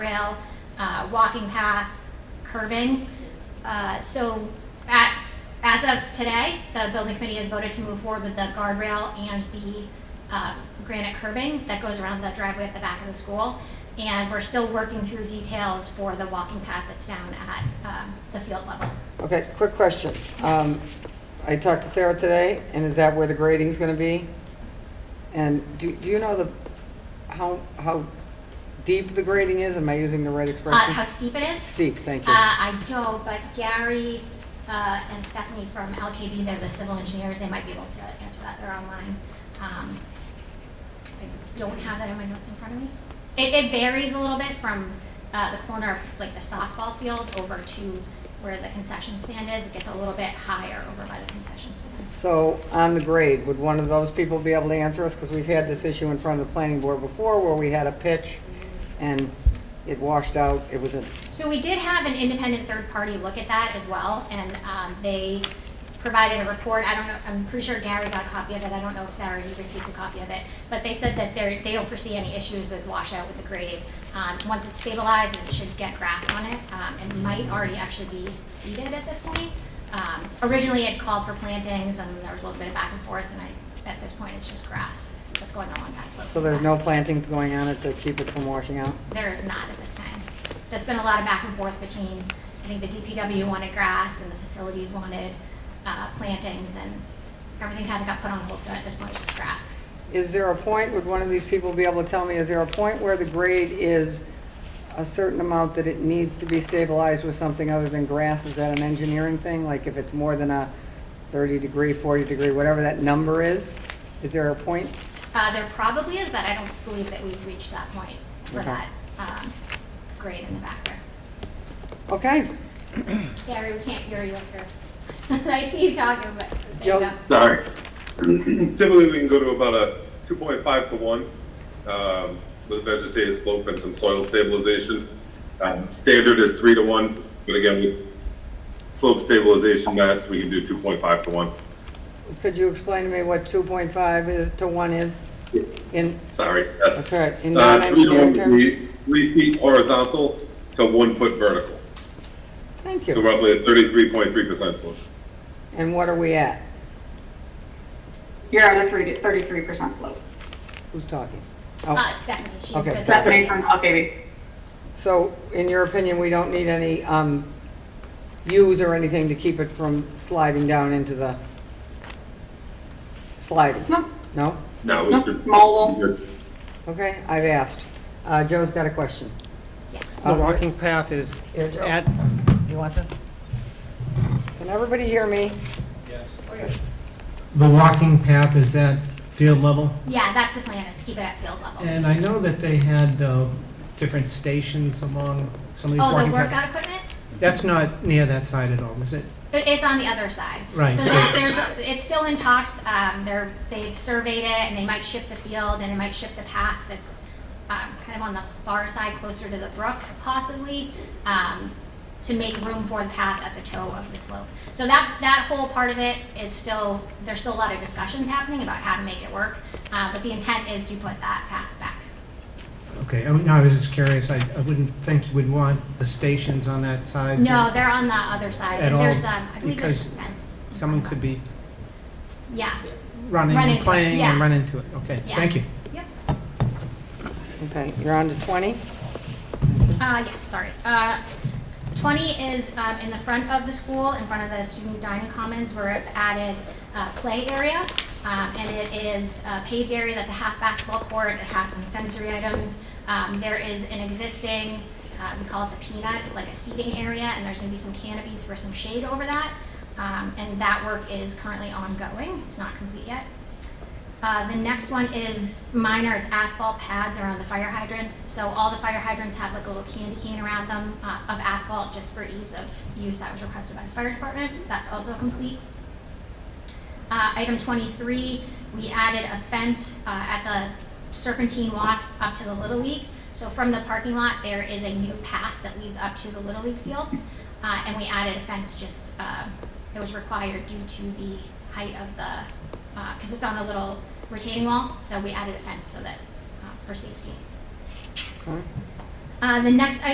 trail, uh, walking path, curving. Uh, so at, as of today, the building committee has voted to move forward with the guardrail and the uh, granite curbing that goes around the driveway at the back of the school. And we're still working through details for the walking path that's down at um, the field level. Okay, quick question. Um, I talked to Sarah today, and is that where the grading's gonna be? And do, do you know the, how, how deep the grading is? Am I using the right Uh, How expression? steep it is? Steep, thank Uh, you. I don't, but Gary uh, and Stephanie from LKB, they're the civil engineers, they might be able to answer that, they're online. Um, I don't have that in my notes in front of me. It, it varies a little bit from uh, the corner of like the softball field over to where the concession stand is, it gets a little bit higher over by the concession stand. So on the grade, would one of those people be able to answer us? Because we've had this issue in front of the planning board before where we had a pitch and it washed out. It was a, So we did have an independent third party look at that as well, and um, they provided a report. I don't know, I'm pretty sure Gary got a copy of it. I don't know if Sarah, you received a copy of it. But they said that they're, they don't foresee any issues with washout with the grade. Um, Once it's stabilized, it should get grass on it. um, and might already actually be seeded at this point. Um, Originally, it called for plantings, and there was a little bit of back and forth, and I, at this point, it's just grass that's going along that slope. so there's no plantings going on it to keep it from washing out? There is not at this time. There's been a lot of back and forth between, I think the DPW wanted grass and the facilities wanted uh, plantings and everything kind of got put on hold, so at this point it's just grass. Is there a point, would one of these people be able to tell me, is there a point where the grade is a certain amount that it needs to be stabilized with something other than grass? Is that an engineering thing? Like if it's more than a 30 degree, 40 degree, whatever that number is? Is there a point? Uh, There probably is, but I don't believe that we've reached that point for Okay. that um, grade in the back there. Okay, Gary, we can't hear you up here. I see you talking, but there Joe- you go. Sorry. Typically, we can go to about a 2.5 to 1 um, with vegetated slope and some soil stabilization. Um, Standard is 3 to 1, but again, with slope stabilization mats, we can do 2.5 to 1. could you explain to me what 2.5 is to 1 is? In, Sorry. yes. that's all right, in Uh, 3 to 1 non-engineering would terms? be 3 feet horizontal to 1 foot vertical. Thank So you. roughly a 33.3% slope. And what are we at? You're at a three, thirty-three percent slope. Who's talking? Uh, Oh, Stephanie, she's Okay. with the Stephanie from Hawk Baby. So in your opinion, we don't need any um, views or anything to keep it from sliding down into the sliding? No, No? No, we No, should- model. we should- Okay, I've asked. Uh, Joe's got a question. Yes. The walking path is Here, Joe. at, You want this? Can everybody hear me? the walking path is at field level? Yeah, that's the plan, is keep it at field level. And I know that they had uh, different stations along some of these Oh, the walking paths. workout equipment? That's not near that side at all, is it? It- It's on the other side. Right. So there- there's, it's still in talks. Um, they're, they've surveyed it and they might shift the field and they might shift the path that's um, kind of on the far side, closer to the brook possibly, um, to make room for the path at the toe of the slope. So that, that whole part of it is still, there's still a lot of discussions happening about how to make it work. Uh, but the intent is to put that path back. Okay, I mean, no, I was just curious. I I wouldn't think you would want the stations on that side. No, they're on the other side. At all, There's, um, I believe there's a because fence. Someone could be Yeah, running Run and into it, playing and yeah. run into it. Okay, Yeah. thank you. yep. Okay, you're on to 20? Uh, yes, sorry. Uh, 20 is um, in the front of the school, in front of the student dining commons, where I've added uh, play area. Um, and it is a paved area that's a half basketball court. It has some sensory items. Um, there is an existing, uh, we call it the peanut, it's like a seating area, and there's going to be some canopies for some shade over that. Um, and that work is currently ongoing, it's not complete yet. Uh, the next one is minor, it's asphalt pads around the fire hydrants. So all the fire hydrants have like a little candy cane around them uh, of asphalt just for ease of use. That was requested by the fire department. That's also complete. Uh, item twenty-three, we added a fence, uh, at the Serpentine Walk up to the Little League. So from the parking lot, there is a new path that leads up to the Little League fields. Uh, and we added a fence just, uh, it was required due to the height of the, uh, cause it's on a little retaining wall, so we added a fence so that, uh, for safety. Okay. Uh, The next